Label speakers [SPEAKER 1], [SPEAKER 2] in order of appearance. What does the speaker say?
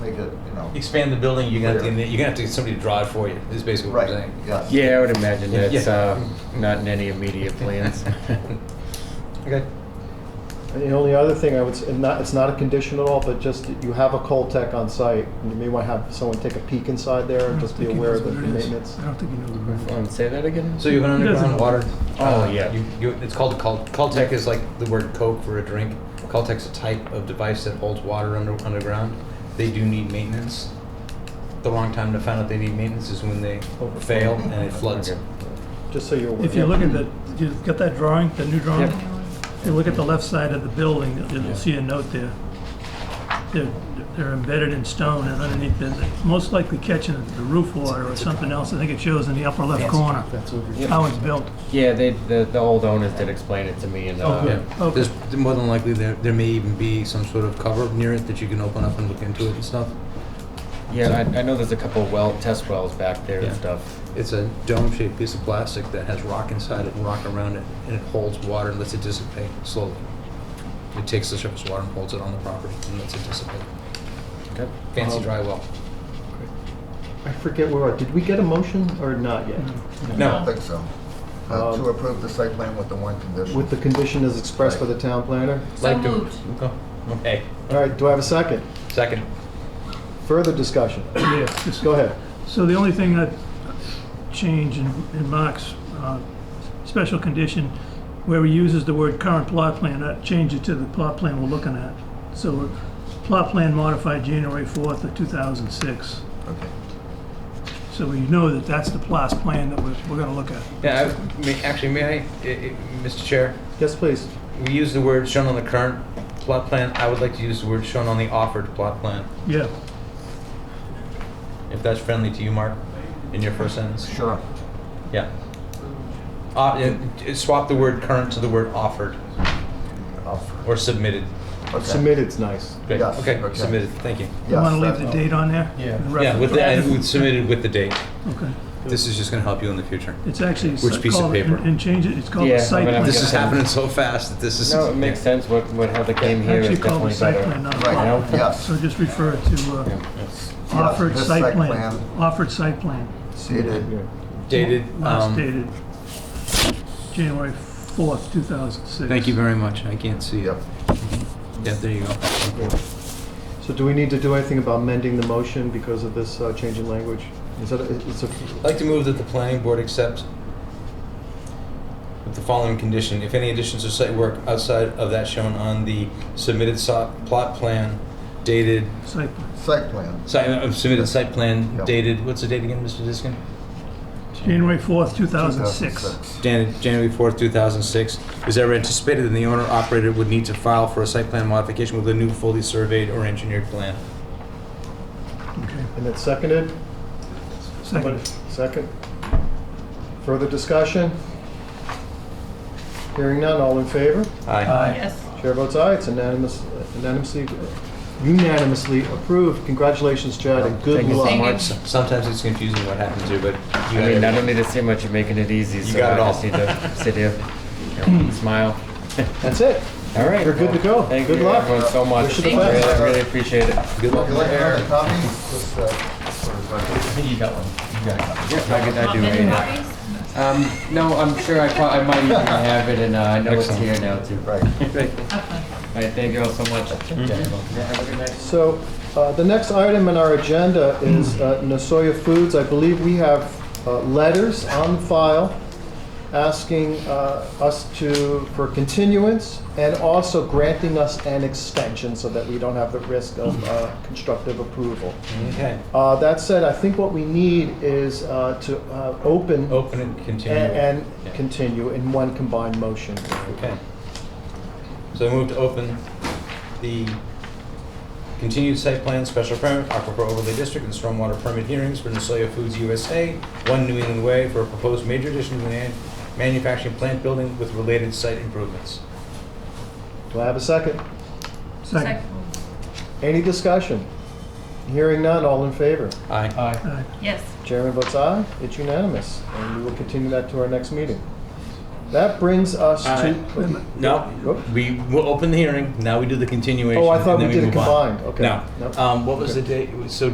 [SPEAKER 1] to, you know.
[SPEAKER 2] Expand the building, you're gonna, have to-
[SPEAKER 1] Clear.
[SPEAKER 2] you're gonna have to get somebody to draw it for you, is basically what
[SPEAKER 1] Right,
[SPEAKER 2] I'm saying.
[SPEAKER 1] yeah.
[SPEAKER 3] Yeah, I would imagine
[SPEAKER 2] Yeah.
[SPEAKER 3] that's uh, not in any immediate plans.
[SPEAKER 2] Okay.
[SPEAKER 4] And the only other thing I would, s- and not, it's not a condition at all, but just that you have a Coltech on site, and you may want to have someone take a peek inside there and just be aware of the maintenance.
[SPEAKER 5] I don't think he knows what it
[SPEAKER 3] Um,
[SPEAKER 5] is.
[SPEAKER 3] Say that again?
[SPEAKER 2] So you have an
[SPEAKER 5] He doesn't-
[SPEAKER 2] underground water?
[SPEAKER 3] Oh,
[SPEAKER 2] uh,
[SPEAKER 3] yeah.
[SPEAKER 2] You, you, it's called, Col- Caltech is like the word Coke for a drink. Caltech's a type of device that holds water under, underground. They do need maintenance. The wrong time to find out they need maintenance is when they fail and it floods.
[SPEAKER 3] Okay.
[SPEAKER 4] Just so you're aware.
[SPEAKER 5] If you look at the, you've got that drawing, the new drawing?
[SPEAKER 3] Yep.
[SPEAKER 5] If you look at the left side of the building, you'll- you'll see a note there. They're, they're embedded in stone and underneath, they're most likely catching the roof water or something else. I think it shows in the upper left corner, how it's built.
[SPEAKER 3] Yeah, they, the, the old owners did explain it to me and,
[SPEAKER 5] Oh,
[SPEAKER 3] uh,
[SPEAKER 5] good.
[SPEAKER 2] Yeah,
[SPEAKER 5] Okay.
[SPEAKER 2] there's more than likely there, there may even be some sort of cover near it that you can open up and look into it and stuff.
[SPEAKER 3] yeah, I, I know there's a couple well, test wells back there
[SPEAKER 2] Yeah.
[SPEAKER 3] and stuff.
[SPEAKER 2] It's a dome-shaped piece of plastic that has rock inside it and rock around it, and it holds water and lets it dissipate slowly. It takes the surface water and holds it on the property and lets it dissipate.
[SPEAKER 3] Okay.
[SPEAKER 2] Fancy
[SPEAKER 4] Um,
[SPEAKER 2] dry well.
[SPEAKER 4] I forget where, we are. did we get a motion or not yet?
[SPEAKER 5] Mm.
[SPEAKER 1] I
[SPEAKER 2] No,
[SPEAKER 1] think so. Uh, To
[SPEAKER 4] Um,
[SPEAKER 1] approve the site plan with the one condition.
[SPEAKER 4] With the condition as expressed by the town planner?
[SPEAKER 6] So
[SPEAKER 2] like to.
[SPEAKER 6] moved.
[SPEAKER 2] Okay. Okay,
[SPEAKER 4] All right, do I have a second?
[SPEAKER 2] second.
[SPEAKER 4] Further discussion?
[SPEAKER 5] Yeah, just-
[SPEAKER 4] Go ahead.
[SPEAKER 5] So the only thing I'd change in, in Mark's, uh, special condition, where he uses the word current plot plan, I'd change it to the plot plan we're looking at. So plot plan modified January fourth of two thousand six.
[SPEAKER 1] Okay.
[SPEAKER 5] So we know that that's the plot plan that we're, we're gonna look at.
[SPEAKER 2] Yeah, I- may- actually, may I, i- i- Mr. Chair?
[SPEAKER 4] Yes, please.
[SPEAKER 2] We use the word shown on the current plot plan. I would like to use the word shown on the offered plot plan,
[SPEAKER 5] Yeah,
[SPEAKER 2] if that's friendly to you, Mark, in your first sentence.
[SPEAKER 1] Sure.
[SPEAKER 2] Yeah. Uh, yeah, t- swap the word current to the word offered or submitted.
[SPEAKER 1] Okay.
[SPEAKER 4] Submitted's nice.
[SPEAKER 2] Great.
[SPEAKER 1] Yes,
[SPEAKER 2] Okay,
[SPEAKER 1] okay.
[SPEAKER 2] submitted, thank you.
[SPEAKER 5] you wanna
[SPEAKER 1] Yes,
[SPEAKER 5] leave the
[SPEAKER 1] that-
[SPEAKER 5] date on there? Yeah.
[SPEAKER 2] Yeah, with the, and with submitted with the date.
[SPEAKER 5] Okay,
[SPEAKER 2] This is just gonna help you in the future.
[SPEAKER 5] it's actually.
[SPEAKER 2] Which piece of
[SPEAKER 5] called- and-
[SPEAKER 2] paper?
[SPEAKER 5] And change it, it's called
[SPEAKER 3] Yeah,
[SPEAKER 5] a
[SPEAKER 3] I'm
[SPEAKER 5] site
[SPEAKER 3] gonna have
[SPEAKER 5] plan.
[SPEAKER 3] to
[SPEAKER 2] This
[SPEAKER 3] get
[SPEAKER 2] is
[SPEAKER 3] that.
[SPEAKER 2] happening so fast that this is.
[SPEAKER 3] No, it makes
[SPEAKER 2] yeah.
[SPEAKER 3] sense, what, what, how they came here
[SPEAKER 5] Actually
[SPEAKER 3] is
[SPEAKER 5] called a
[SPEAKER 3] definitely
[SPEAKER 5] site
[SPEAKER 3] better.
[SPEAKER 5] plan, uh, not a
[SPEAKER 1] Right,
[SPEAKER 5] plot.
[SPEAKER 3] You know?
[SPEAKER 1] yes.
[SPEAKER 5] So just refer to, uh,
[SPEAKER 1] yes,
[SPEAKER 5] Offered
[SPEAKER 1] this
[SPEAKER 5] site plan, offered site plan,
[SPEAKER 1] Dated,
[SPEAKER 2] Dated,
[SPEAKER 5] last
[SPEAKER 2] um,
[SPEAKER 5] dated January 4th, 2006.
[SPEAKER 2] thank you very much. I can't see it.
[SPEAKER 1] yep.
[SPEAKER 2] Yeah, there you go.
[SPEAKER 4] So do we need to do anything about mending the motion because of this uh, change in language? Is that, it's a,
[SPEAKER 2] I'd like to move that the planning board accept with the following condition, if any additions or site work outside of that shown on the submitted so- plot plan dated,
[SPEAKER 5] Site plan,
[SPEAKER 1] Site plan,
[SPEAKER 2] site, uh, submitted site plan
[SPEAKER 1] Yep.
[SPEAKER 2] dated, what's the date again, Mr. Diskin?
[SPEAKER 5] January 4th, 2006.
[SPEAKER 1] 2006.
[SPEAKER 2] Jan- January 4th, 2006, is ever anticipated that the owner operator would need to file for a site plan modification with a new fully surveyed or engineered plan.
[SPEAKER 5] Okay,
[SPEAKER 4] and it's seconded?
[SPEAKER 5] second.
[SPEAKER 4] Second. Further discussion? Hearing none, all in favor?
[SPEAKER 2] Aye.
[SPEAKER 6] Yes.
[SPEAKER 4] Chair votes aye, it's unanimous, unanimously, unanimously approved. Congratulations, Chad, and good
[SPEAKER 3] Thank you so
[SPEAKER 4] luck.
[SPEAKER 3] much.
[SPEAKER 2] S- Sometimes it's confusing what happens here, but you
[SPEAKER 3] I mean, I
[SPEAKER 2] got
[SPEAKER 3] don't
[SPEAKER 2] it.
[SPEAKER 3] need to say much, you're making it easy, so
[SPEAKER 2] got
[SPEAKER 3] I
[SPEAKER 2] it all.
[SPEAKER 3] just need to sit here, you know, smile.
[SPEAKER 4] That's it.
[SPEAKER 3] All right.
[SPEAKER 4] You're good to go.
[SPEAKER 3] Thank
[SPEAKER 4] Good
[SPEAKER 3] you
[SPEAKER 4] luck.
[SPEAKER 3] everyone so much.
[SPEAKER 4] Wish you the
[SPEAKER 3] Really,
[SPEAKER 4] best.
[SPEAKER 3] really appreciate it.
[SPEAKER 2] Good luck.
[SPEAKER 1] You like another copy? Just, uh, for the record.
[SPEAKER 2] You got one. You got a copy.
[SPEAKER 3] Yeah, I, could- I do.
[SPEAKER 6] Want many
[SPEAKER 3] yeah.
[SPEAKER 6] copies?
[SPEAKER 3] Um, no, I'm sure I, pro- I might even have it, and uh, I know
[SPEAKER 2] Excellent.
[SPEAKER 3] it's here now too.
[SPEAKER 1] Right.
[SPEAKER 6] Okay.
[SPEAKER 3] All right, thank you all so much. Yeah, have a good night.
[SPEAKER 4] So, uh, the next item on our agenda is uh, Nasoya Foods. I believe we have uh, letters on file asking uh, us to, for continuance and also granting us an extension so that we don't have the risk of uh, constructive approval.
[SPEAKER 2] Okay,
[SPEAKER 4] Uh, That said, I think what we need is uh, to uh, open
[SPEAKER 2] open and continue.
[SPEAKER 4] and
[SPEAKER 2] Oh, Yeah.
[SPEAKER 4] and continue in one combined motion.
[SPEAKER 2] Okay. So I move to open the continued site plan, special permit, aquifer overlay district, and stormwater permit hearings for Nusoya Foods USA, One New England Way, for a proposed major addition to the man- manufacturing plant building with related site improvements.
[SPEAKER 4] Do I have a second?
[SPEAKER 5] Second.
[SPEAKER 4] Any discussion? Hearing none, all in favor?
[SPEAKER 2] Aye.
[SPEAKER 5] Aye.
[SPEAKER 6] Yes.
[SPEAKER 4] Chairman votes aye, it's unanimous, and we will continue that to our next meeting. That brings us
[SPEAKER 2] All
[SPEAKER 4] to.
[SPEAKER 2] right. No, we will open the hearing, now we do the continuation.
[SPEAKER 4] Oh, I thought
[SPEAKER 2] and
[SPEAKER 4] we
[SPEAKER 2] then
[SPEAKER 4] did it
[SPEAKER 2] move on.
[SPEAKER 4] combined, okay.
[SPEAKER 2] No.
[SPEAKER 4] Nope.
[SPEAKER 2] Um, What was
[SPEAKER 4] Okay.
[SPEAKER 2] the date, so